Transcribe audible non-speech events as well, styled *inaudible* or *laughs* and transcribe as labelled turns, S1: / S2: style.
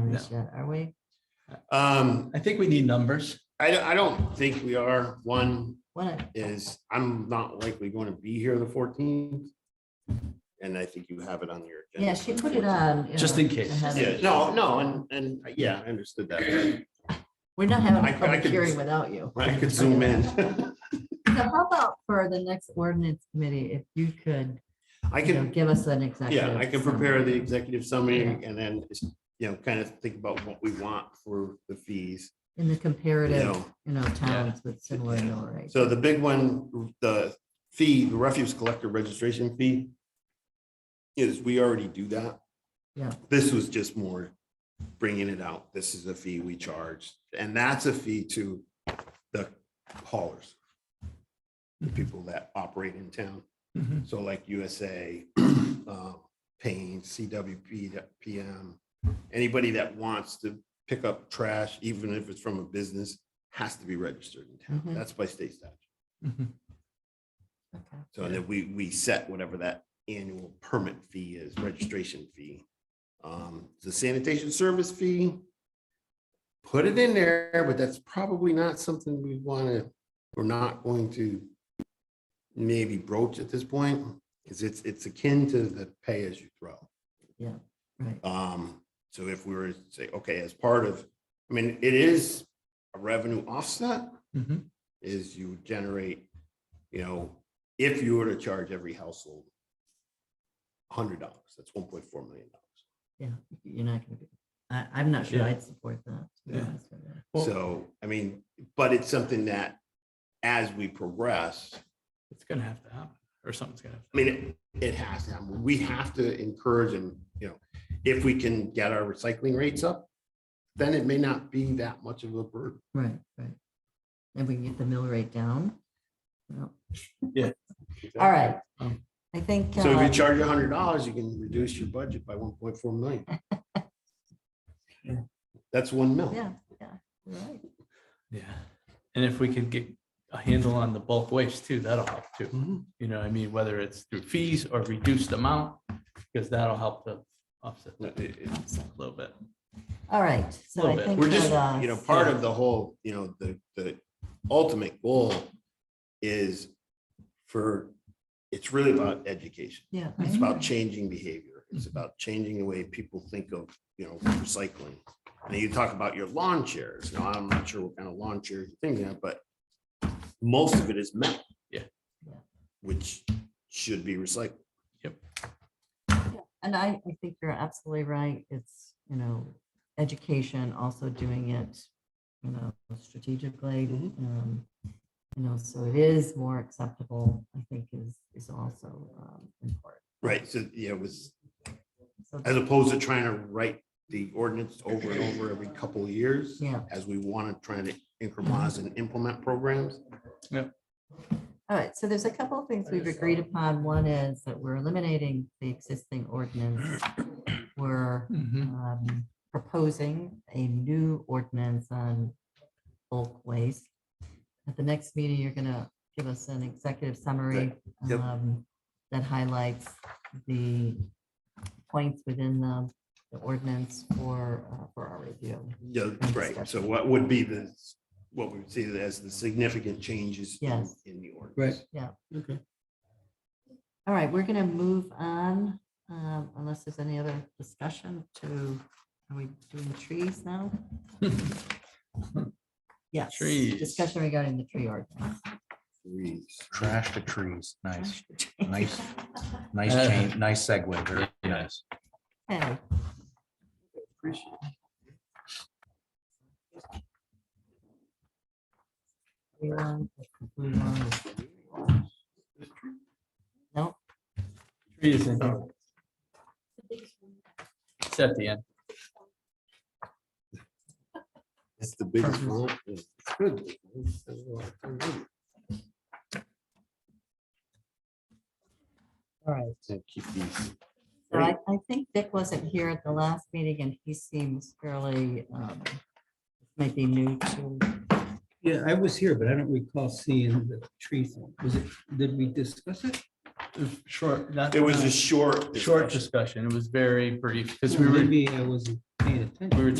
S1: numbers yet, are we?
S2: Um,
S3: I think we need numbers.
S2: I, don't- I don't think we are. One
S1: What,
S2: is I'm not likely going to be here the fourteenth. And I think you have it on your. agenda
S1: yeah,
S2: for
S1: she
S2: the
S1: put it
S2: 14th.
S1: on. you
S3: Just
S1: know,
S3: in case.
S1: to have
S2: Yeah,
S1: it.
S2: no, no, and, and yeah, I understood that.
S1: We're not having
S2: I- I
S1: a public
S2: could-
S1: hearing without you.
S2: I could zoom in. *laughs*
S1: So how about for the next ordinance committee, if you could,
S2: I
S1: you know,
S2: can,
S1: give us an executive.
S2: yeah, I can prepare the
S1: summary.
S2: executive summary and then, you know, kind of think about what we want for the fees.
S1: In the comparative,
S2: No.
S1: you know, towns with similar mill rates.
S2: So the big one, the fee, the refuse collector registration fee is we already do that.
S1: Yeah.
S2: This was just more bringing it out. This is a fee we charge and that's a fee to the haulers. The people that operate in town.
S3: Mhm.
S2: So like USA, *clears throat* uh, Payne, CWP, that PM, anybody that wants to pick up trash, even if it's from a business, has to be registered in
S1: Mhm.
S2: town. That's by state statute.
S3: Mhm.
S1: Okay.
S2: So then we, we set whatever that annual permit fee is, registration fee. Um, the sanitation service fee. Put it in there, but that's probably not something we want to, we're not going to. Maybe broach at this point, because it's, it's akin to the pay as you throw.
S1: Right,
S2: Um, so if we were to say, okay, as part of, I mean, it is a revenue offset
S3: Mhm.
S2: is you generate, you know, if you were to charge every household hundred dollars, that's one point four million dollars.
S1: yeah, you're not gonna be, I, I'm not sure
S3: Yeah.
S1: I'd support that. to be
S3: Yeah.
S1: honest with you.
S3: Well-
S2: So, I mean, but it's something that as we progress,
S3: It's gonna have to happen, or something's gonna.
S2: I mean, it- it has to, happen. we have to encourage and, you know, if we can get our recycling rates up, then it may not be that much of a burden.
S1: Right, right. And we can get the mill rate down. Well, All right,
S3: Um,
S1: I think.
S2: So if
S1: uh,
S2: you charge a hundred dollars, you can reduce your budget by one point
S1: *laughs*
S2: four million.
S3: Yeah.
S2: That's one mil.
S1: Yeah, yeah, you're right.
S3: Yeah. And if we could get a handle on the bulk waste too, that'll help too. You know, what I mean, whether it's through fees or reduced amount, because that'll help to offset that a little bit.
S1: All right, so
S3: Little
S1: I
S3: bit.
S1: think.
S2: We're just,
S1: that, uh,
S2: you know, part of the whole, you know, the, the ultimate goal is for, it's really about education.
S1: Yeah. I
S2: It's about
S1: know.
S2: changing behavior. It's about changing the way people think of, you know, recycling. And you talk about your lawn chairs. Now, I'm not sure what kind of lawn chairs you're thinking of, but most of it is metal.
S3: Yeah.
S1: Yeah.
S2: Which should be recycled.
S1: And I, I think you're absolutely right. It's, you know, education, also doing it, you know, strategically.
S2: Mhm.
S1: um, You know, so it is more acceptable, I think is, is also um, important.
S2: Right, so, yeah, it was,
S1: So,
S2: as opposed to trying to write the ordinance over and over every couple of years.
S1: yeah,
S2: As we want to try to incrementize and implement programs.
S1: all right. So there's a couple of things we've agreed upon. One is that we're eliminating the existing
S2: *clears throat*
S1: ordinance. We're
S3: Mhm.
S1: um, proposing a new ordinance on bulk waste. At the next meeting, you're gonna give us an executive summary
S2: Yep.
S1: um, that highlights the points within the the ordinance for, uh, for our review.
S2: Yeah, right, so what would be the, what we would see as the significant changes in-
S1: Yes.
S2: in the ordinance.
S1: All right, we're gonna move on, um, unless there's any other discussion to, are we doing trees now? Yes.
S3: Trees.
S1: Discussion regarding the tree ordinance.
S2: Trees.
S4: Trash to trees. Nice, nice, nice change, nice segue. Very nice.
S1: Okay. We want- we want- No,
S3: Trees in here. It's at the end.
S2: It's the biggest one. It's good. Keep
S1: all right.
S2: these.
S1: So I, I think Dick wasn't here at the last meeting and he seems fairly, um, might be new to,
S5: Yeah, I was here, but I don't recall seeing the tree thing. Was it, did we discuss it?
S3: Short. not-
S2: It was a short.
S3: Short
S2: discussion.
S3: discussion. It was very brief because we were,
S5: Maybe I wasn't paying attention.
S3: we were